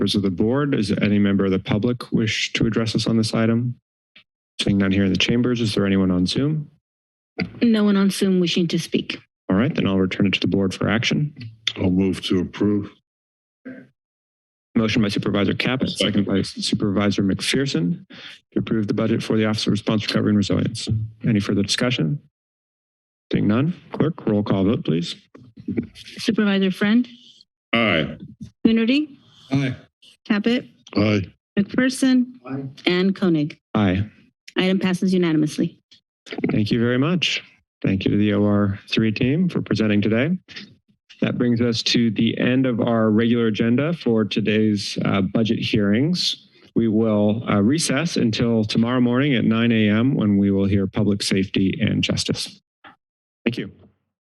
members of the board. Does any member of the public wish to address us on this item? Seeing none here in the chambers, is there anyone on Zoom? No one on Zoom wishing to speak. All right, then I'll return it to the board for action. I'll move to approve. Motion by Supervisor Caput, second by Supervisor McPherson to approve the budget for the Office of Response Recovery and Resilience. Any further discussion? Seeing none, clerk, roll call vote, please. Supervisor Friend, Aye. Coonerty, Aye. Caput, Aye. McPherson, Aye. and Koenig. Aye. Item passes unanimously. Thank you very much. Thank you to the OR3 team for presenting today. That brings us to the end of our regular agenda for today's uh, budget hearings. We will uh, recess until tomorrow morning at 9 a.m. when we will hear public safety and justice. Thank you.